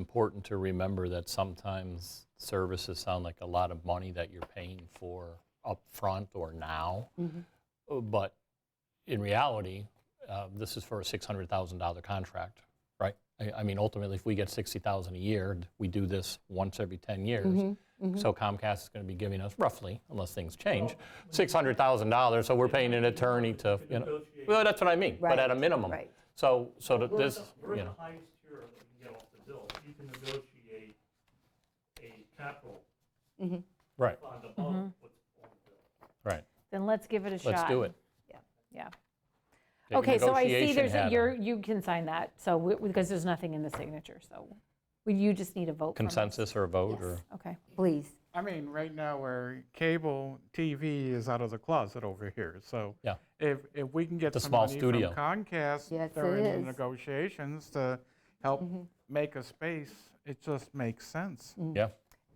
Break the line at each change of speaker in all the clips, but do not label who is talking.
important to remember that sometimes services sound like a lot of money that you're paying for upfront or now. Uh, But in reality, uh, this is for a $600,000 contract, right? I, I mean, ultimately, if we get 60,000 a year, we do this once every 10 years. So Comcast is going to be giving us roughly, unless things change, $600,000. So we're paying an attorney to, you know, well, that's what I mean, but
Right,
at a minimum.
right.
Um, So, so that
We're at
this,
the- We're
you
at the
know,
highest tier that we can get off the bill. You can negotiate a capital
Mm-hmm.
right,
bond above what's on the bill.
right.
Then let's give it a Mm-hmm. shot.
Let's do it.
Yeah.
Take a
Okay, so I see
negotiation
there's, a-
hat
you're,
on.
you can sign that, so, we- because there's nothing in the signature, so we- you just need a vote from us.
Consensus or a vote or?
Okay,
Please.
I mean, right now, our cable TV is out of the closet over here, so.
Yeah.
If, if we can get
a
some
small
money from
studio.
Yes,
Comcast
it
during the
is. Mm-hmm.
negotiations to help make a space, it just makes sense.
Yeah,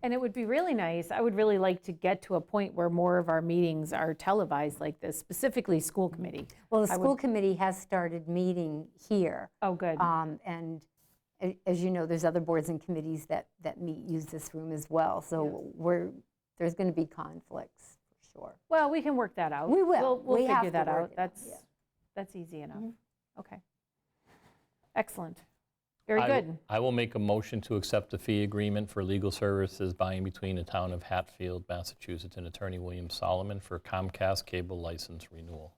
and it would be really nice, I would really like to get to a point where more of our meetings are televised like this, specifically school committee.
Well, the school committee has started meeting here.
Oh, good.
Um, And a- as you know, there's other boards and committees that, that meet, use this room as well. So we're, there's going to be conflicts, for sure.
Well, we can work that out.
We will.
We'll- We'll
We have
figure
to
that
work
out.
it out,
That's,
yeah. Mm-hmm.
that's easy enough. Okay. Excellent. Very
I w-
good.
I will make a motion to accept the fee agreement for legal services by and between the town of Hatfield, Massachusetts, and Attorney William Solomon for Comcast cable license renewal.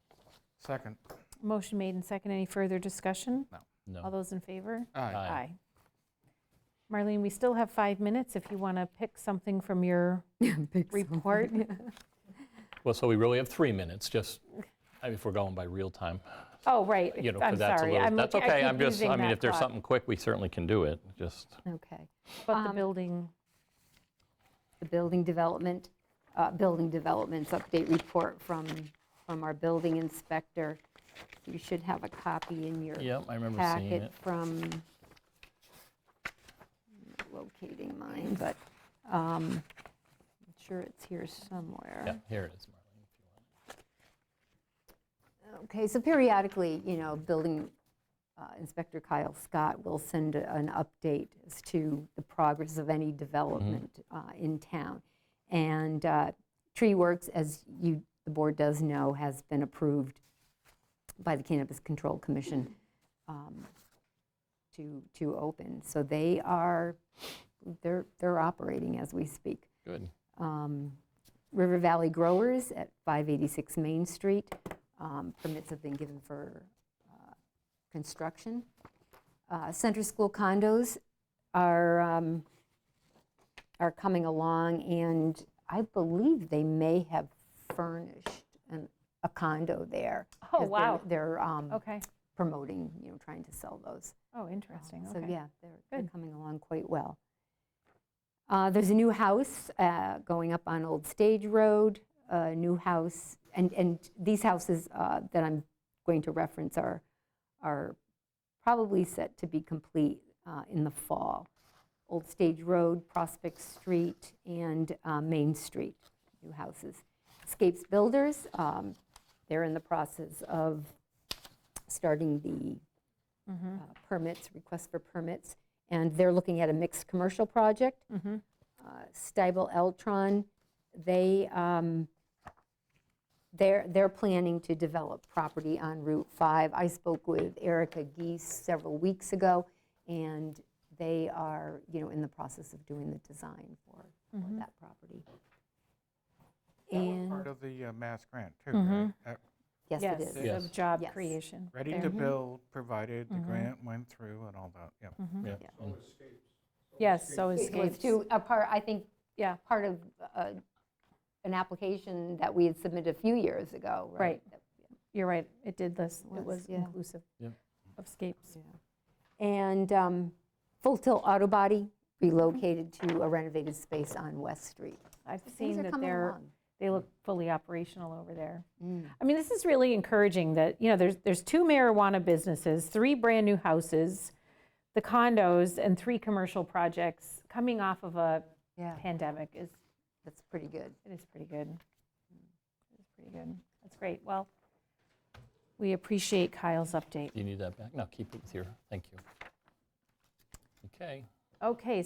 Second,
Motion made and second. Any further discussion? All
No,
those in favor?
aye.
Aye.
Marlene, we still have five minutes if you want to pick something from your report.
well, so we really have three minutes, just, I mean, if we're going by real time,
Oh, right.
you know,
I'm
because that's a
sorry.
little,
I'm
that's
looking-
okay,
keep
I'm just,
losing
I mean,
that
if there's
thought.
something quick, we certainly can do it, just,
Okay.
But
Um,
the building,
the building development, uh, building developments update report from, from our building inspector. You should have a copy in your
yep, I remember seeing
packet
it.
from, I'm not locating mine, but um, I'm sure it's here somewhere.
Yeah, here it is, Marlene.
Okay, so periodically, you know, building uh, inspector Kyle Scott will send a- an update as to the progress of any development uh, in town. And uh, Tree Works, as you, the board does know, has been approved by the Cannabis Control Commission um, to, to open. So they are, they're, they're operating as we speak
Good,
um, River Valley Growers at 586 Main Street. Um, Permits have been given for uh, construction. Uh, Center School condos are, um, are coming along, and I believe they may have furnished an- a condo there.
Oh,
'cause they're-
wow.
They're um,
okay.
promoting, you know, trying to sell those.
Oh, interesting.
So,
Okay.
yeah, they're, they're
Good.
coming along quite well. Uh, There's a new house uh, going up on Old Stage Road, a new house, and, and these houses uh, that I'm going to reference are, are probably set to be complete uh, in the fall. Old Stage Road, Prospect Street, and uh, Main Street, new houses. Scapes Builders, um, they're in the process of starting the uh, permits, requests for permits, and they're looking at a mixed commercial project. Uh, Stiebel Eltron, they, um, they're, they're planning to develop property on Route 5. I spoke with Erica Geese several weeks ago, and they are, you know, in the process of doing the design for, for that property.
Part
And,
of the uh, mass grant, too,
Mm-hmm.
right? Uh,
yes, it
Yes,
is.
Yes.
of job
Yes.
creation.
Ready
there.
to
Mm-hmm.
build, provided the grant went through and all that, yep.
yeah.
Yes, so
It was
escapes.
to, a part, I think,
Yeah.
part of uh, an application that we had submitted a few years ago, right?
You're right, it did this, it
Yes,
was
yeah.
inclusive
Yeah.
of scapes.
And um, Full Tilt Auto Body relocated to a renovated space on West Street.
I've
Things
seen
are
that
coming
they're,
along.
they look fully operational over there. I mean, this is really encouraging that, you know, there's, there's two marijuana businesses, three brand-new houses, the condos, and three commercial projects coming off of a
Yeah,
pandemic is,
that's pretty good.
it is pretty good. It's pretty good. That's great. Well, we appreciate Kyle's update.
Do you need that back? No, keep it with your, thank you. Okay,
Okay,